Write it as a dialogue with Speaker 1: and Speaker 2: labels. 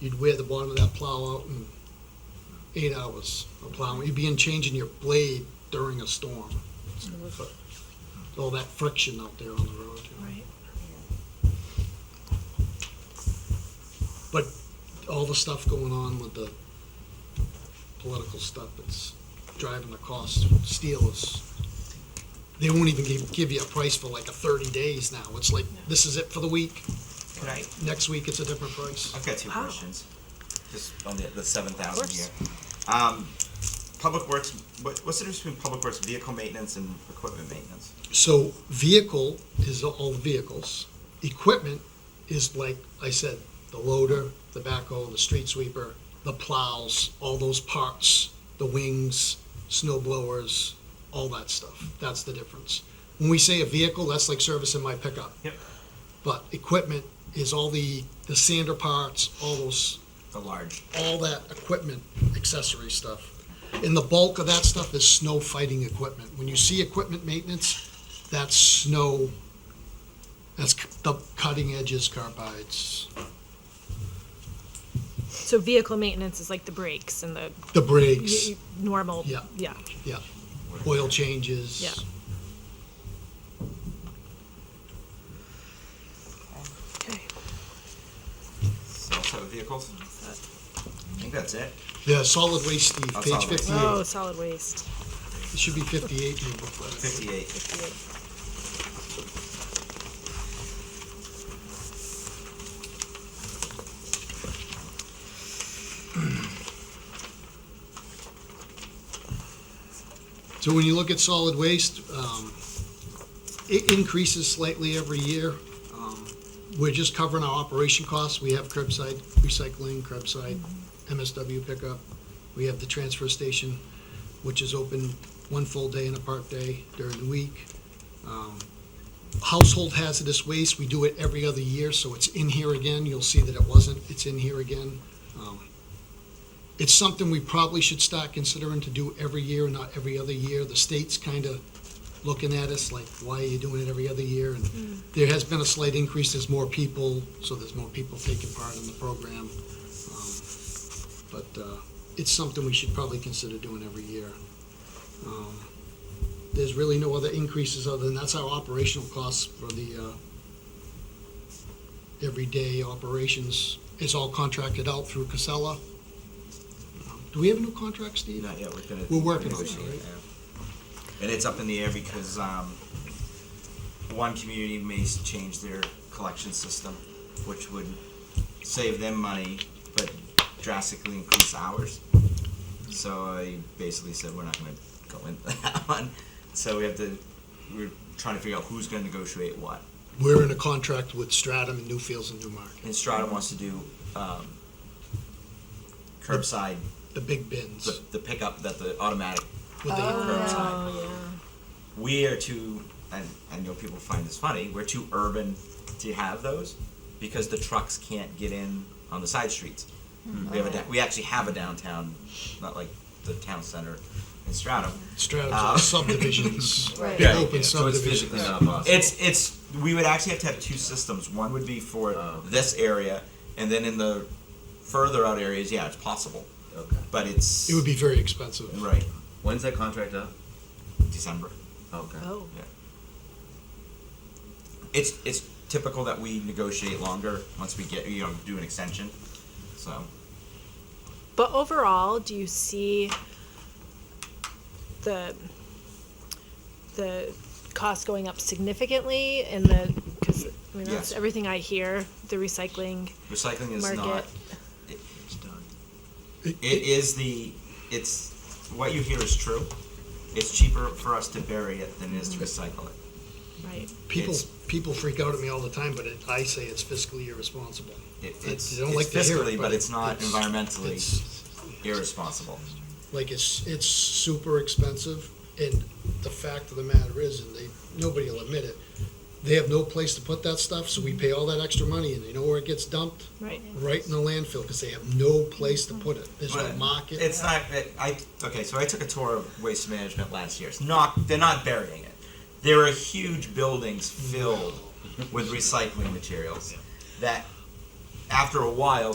Speaker 1: you'd wear the bottom of that plow out in eight hours of plowing. You'd be in changing your blade during a storm. All that friction out there on the road. you know.
Speaker 2: Right.
Speaker 1: But all the stuff going on with the political stuff, it's driving the cost. Steel is, they won't even give, give you a price for like a thirty days now. It's like, this is it for the week.
Speaker 3: Could I,
Speaker 1: Next week, it's a different price.
Speaker 3: I've got two
Speaker 2: Wow.
Speaker 3: questions, just on the, the seven thousand
Speaker 2: course.
Speaker 3: here. Um, Public Works, what, what's the difference between Public Works vehicle maintenance and equipment maintenance?
Speaker 1: So vehicle is all the vehicles. Equipment is like I said, the loader, the backhoe, the street sweeper, the plows, all those parts, the wings, snow blowers, all that stuff. That's the difference. When we say a vehicle, that's like servicing my pickup.
Speaker 3: Yep.
Speaker 1: But equipment is all the, the sander parts, all those,
Speaker 3: The large,
Speaker 1: all that equipment, accessory stuff. And the bulk of that stuff is snow fighting equipment. When you see equipment maintenance, that's snow, that's c- the cutting edges, carbides,
Speaker 2: So vehicle maintenance is like the brakes and the
Speaker 1: the
Speaker 2: y-
Speaker 1: brakes,
Speaker 2: y- normal.
Speaker 1: Yeah.
Speaker 2: Yeah.
Speaker 1: yeah, oil changes.
Speaker 2: Yeah. Okay.
Speaker 3: so I'll set with vehicles. I think that's it.
Speaker 1: Yeah, solid waste, Steve,
Speaker 3: That's
Speaker 1: page
Speaker 3: solid waste.
Speaker 1: fifty-eight.
Speaker 2: Oh, solid waste.
Speaker 1: It should be fifty-eight in your booklet.
Speaker 3: Fifty-eight.
Speaker 1: So when you look at solid waste, um, it increases slightly every year. Um, We're just covering our operation costs. We have curbside recycling, curbside MSW pickup. We have the transfer station, which is open one full day and a part day during the week. Um, Household hazardous waste, we do it every other year, so it's in here again. You'll see that it wasn't, it's in here again. Um, it's something we probably should start considering to do every year and not every other year. The state's kind of looking at us like, why are you doing it every other year? And there has been a slight increase, there's more people, so there's more people taking part in the program. Um, But uh, it's something we should probably consider doing every year. Um, There's really no other increases other than, that's our operational costs for the uh, everyday operations. It's all contracted out through Casella. Um, Do we have a new contract, Steve?
Speaker 3: Not yet, we're gonna.
Speaker 1: We're working on it, right?
Speaker 3: negotiate now. And it's up in the air because, um, one community may s- change their collection system, which would save them money, but drastically increase ours. So I basically said, we're not gonna go in that one, so we have to, we're trying to figure out who's gonna negotiate what.
Speaker 1: We're in a contract with Stratum and Newfields and Newmarket,
Speaker 3: And Strata wants to do, um, curbside,
Speaker 1: the big bins.
Speaker 3: the, the pickup that the automatic
Speaker 1: with the-
Speaker 3: curbside.
Speaker 2: Oh yeah.
Speaker 3: we are too and I know people find this funny, we're too urban to have those because the trucks can't get in on the side streets. We have a da- we actually have a downtown, not like the town center in Stratham.
Speaker 1: Stratum's
Speaker 3: Uh,
Speaker 1: are subdivisions.
Speaker 2: Right.
Speaker 1: big
Speaker 3: Yeah,
Speaker 1: Open
Speaker 4: So it's physically
Speaker 1: subdivisions.
Speaker 4: not possible.
Speaker 3: It's it's we would actually have to have two systems. One would be for
Speaker 4: Oh.
Speaker 3: this area and then in the further out areas, yeah, it's possible.
Speaker 4: Okay.
Speaker 3: But it's
Speaker 1: It would be very expensive.
Speaker 3: right,
Speaker 4: When's that contract up?
Speaker 3: December.
Speaker 4: Okay.
Speaker 2: Oh.
Speaker 3: It's it's typical that we negotiate longer once we get you know do an extension. So
Speaker 2: But overall, do you see the the cost going up significantly in the because I mean that's
Speaker 3: Yes.
Speaker 2: everything I hear the recycling
Speaker 3: recycling is not
Speaker 2: market.
Speaker 3: it is the it's what you hear is true. It's cheaper for us to bury it than it is to recycle it.
Speaker 2: Right.
Speaker 1: People,
Speaker 3: It's-
Speaker 1: people freak out at me all the time, but it, I say it's fiscally irresponsible.
Speaker 3: it
Speaker 1: I
Speaker 3: it's,
Speaker 1: don't
Speaker 3: it's
Speaker 1: like to hear it,
Speaker 3: fiscally, but it's not
Speaker 1: it's-
Speaker 3: environmentally
Speaker 1: it's-
Speaker 3: irresponsible.
Speaker 1: Like, it's, it's super expensive, and the fact of the matter is, and they, nobody will admit it, they have no place to put that stuff, so we pay all that extra money, and you know where it gets dumped?
Speaker 2: Right.
Speaker 1: Right in the landfill, because they have no place to put it. There's no
Speaker 3: But
Speaker 1: market.
Speaker 3: It's not. It, I okay. So I took a tour of waste management last year. It's not. They're not burying it. There are huge buildings filled with recycling materials that, after a while,